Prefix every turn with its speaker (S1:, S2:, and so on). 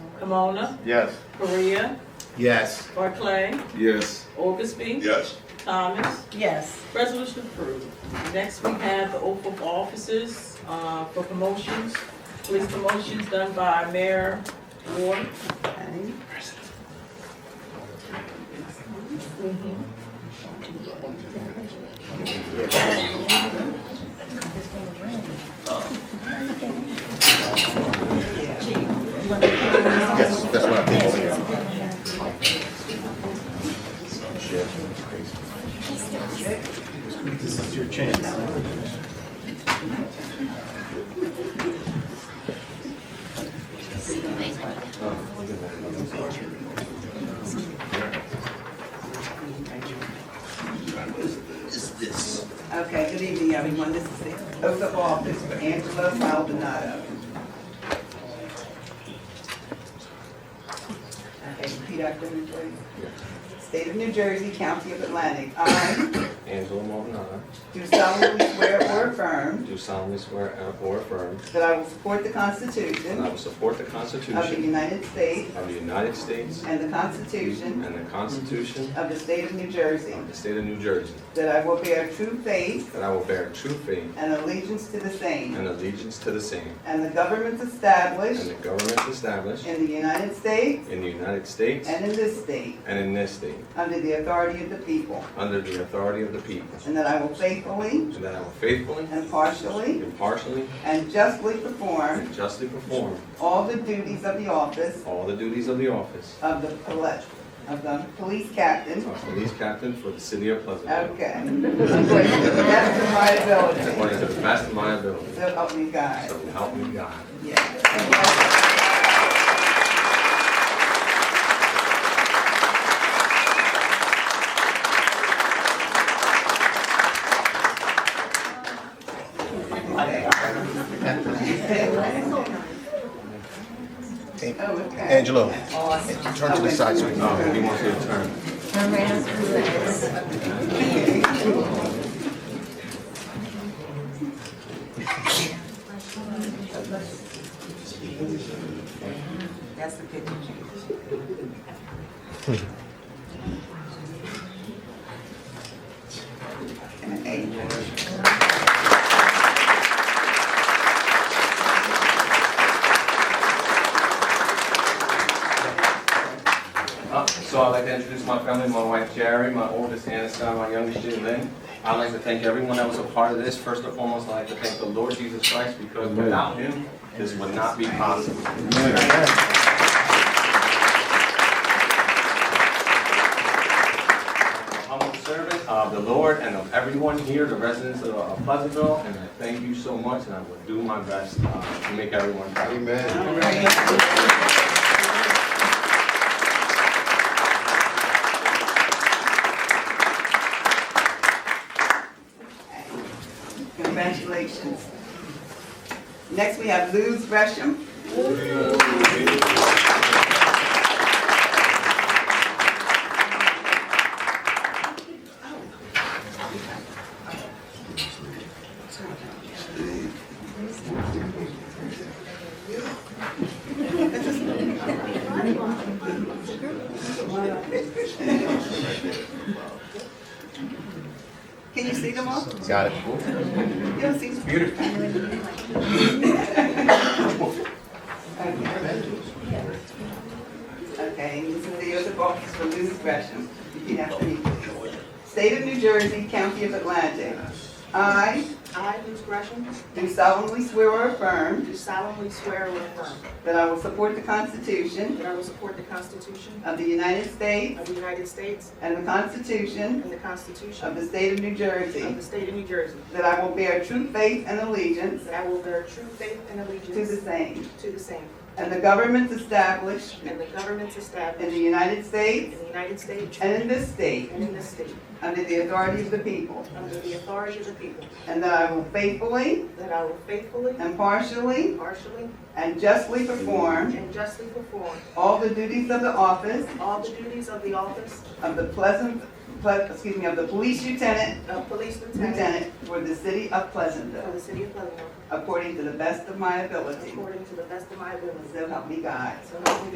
S1: Pomona,
S2: Yes.
S1: Korea,
S2: Yes.
S1: Barclay,
S3: Yes.
S1: Augustby,
S3: Yes.
S1: Thomas.
S4: yes,
S1: Resolution approved. Next, we have the oath of offices uh, for promotions, police promotions done by Mayor Ward.
S4: okay,
S2: Yes, that's what I think.
S4: Okay, good evening, everyone, this is the oath of office for Angela Maldonado. Okay, repeat after me, please. State of New Jersey, County of Atlantic, I
S5: Angela Maldonado,
S4: do solemnly swear or affirm
S5: do solemnly swear or affirm
S4: that I will support the
S5: that I
S4: Constitution
S5: will support the
S4: of the
S5: Constitution
S4: United States
S5: of the United States
S4: and the Constitution
S5: and the Constitution
S4: of the State of New Jersey,
S5: of the State of New Jersey,
S4: that I will bear true faith
S5: that I will bear true faith
S4: and allegiance to the same,
S5: and allegiance to the same,
S4: and the governments
S5: and
S4: established
S5: the governments established
S4: in the United States
S5: in the United States
S4: and in this state,
S5: and in this state,
S4: under the authority of the people,
S5: under the authority of the people,
S4: and that I will faithfully,
S5: and that I will faithfully,
S4: impartially,
S5: impartially,
S4: and justly perform
S5: and justly perform
S4: all the duties of the office
S5: all the duties of the office
S4: of the poli- of the police captain.
S5: of Police Captain for the City of Pleasantville,
S4: Okay. That's my ability.
S5: according to the best of my ability.
S4: So help me God.
S5: So help me God.
S4: Yes. Oh, okay.
S2: Angelo,
S4: Awesome.
S2: turn to the side so we can.
S5: Oh, he wants you to turn.
S6: Turn around to the left.
S4: That's the picture. And an eight.
S5: Uh, So I'd like to introduce my family, my wife Jerry, my oldest Anna, my youngest Jalen. I'd like to thank everyone that was a part of this. First and foremost, I'd like to thank the Lord Jesus Christ because without him, this would not be possible. Humble servant of the Lord and of everyone here, the residents of uh, Pleasantville, and I thank you so much, and I will do my best uh, to make everyone proud.
S2: Amen.
S4: All right. Congratulations. Next, we have Luz Gresham. Can you see them all?
S2: Got it.
S4: You don't see them?
S5: Beautiful.
S4: Okay, Okay, this is the oath of office for Luz Gresham. Repeat after me. State of New Jersey, County of Atlantic. I
S7: I, Ms. Gresham,
S4: do solemnly swear or affirm
S7: do solemnly swear or affirm
S4: that I will support the Constitution
S7: that I will support the Constitution
S4: of the United States
S7: of the United States
S4: and the Constitution
S7: and the
S4: of
S7: Constitution
S4: the State of New
S7: of
S4: Jersey,
S7: the State of New Jersey,
S4: that I will bear true faith and allegiance
S7: that I will bear true faith and
S4: to the
S7: allegiance
S4: same,
S7: to the same,
S4: and the governments established
S7: and the governments
S4: in the
S7: established
S4: United States
S7: in the United States
S4: and in this state,
S7: and in this state,
S4: under the authority of the people,
S7: under the authority of the people,
S4: and that I will faithfully,
S7: that I will faithfully,
S4: impartially,
S7: impartially,
S4: and justly perform
S7: and justly perform
S4: all the duties of the office
S7: all the duties of the office
S4: of the Pleasant, Ple- excuse me, of the police lieutenant,
S7: of Police Lieutenant
S4: lieutenant for the city of
S7: for
S4: Pleasantville,
S7: the City of Pleasantville,
S4: according to the best of my ability.
S7: according to the best of my ability.
S4: So help me God.
S7: So help me